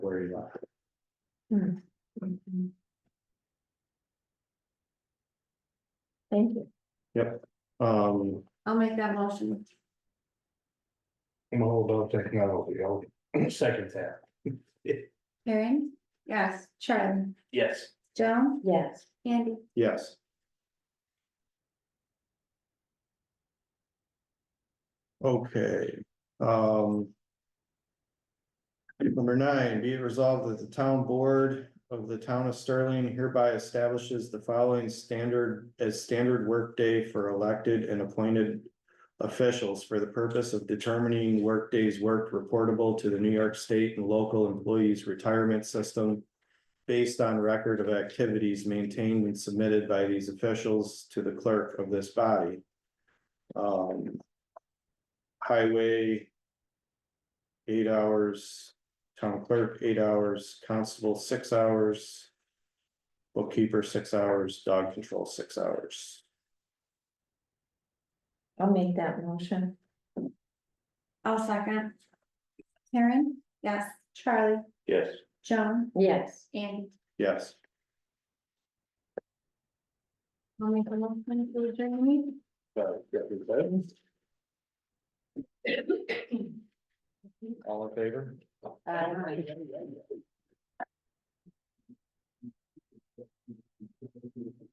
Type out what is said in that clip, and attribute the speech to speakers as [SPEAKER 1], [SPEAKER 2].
[SPEAKER 1] where he left.
[SPEAKER 2] Thank you.
[SPEAKER 1] Um,
[SPEAKER 2] I'll make that motion.
[SPEAKER 1] mobile technology, I'll second that.
[SPEAKER 2] Karen? Yes. Charlie?
[SPEAKER 1] Yes.
[SPEAKER 2] Joan?
[SPEAKER 3] Yes,
[SPEAKER 2] Andy?
[SPEAKER 1] Yes. Okay, um. Number nine, be it resolved that the town board of the town of Sterling hereby establishes the following standard as standard workday for elected and appointed. Officials for the purpose of determining workdays worked reportable to the New York State and local employees retirement system based on record of activities maintained and submitted by these officials to the clerk of this body. Um, Highway. Eight hours, town clerk, eight hours, constable, six hours. Bookkeeper, six hours, dog control, six hours.
[SPEAKER 3] I'll make that motion.
[SPEAKER 2] I'll second. Karen? Yes. Charlie?
[SPEAKER 1] Yes.
[SPEAKER 2] Joan?
[SPEAKER 3] Yes,
[SPEAKER 2] Andy?
[SPEAKER 1] Yes,
[SPEAKER 2] I'll make a motion to adjourn the meeting.
[SPEAKER 1] all in favor? Uh,
[SPEAKER 3] Aye.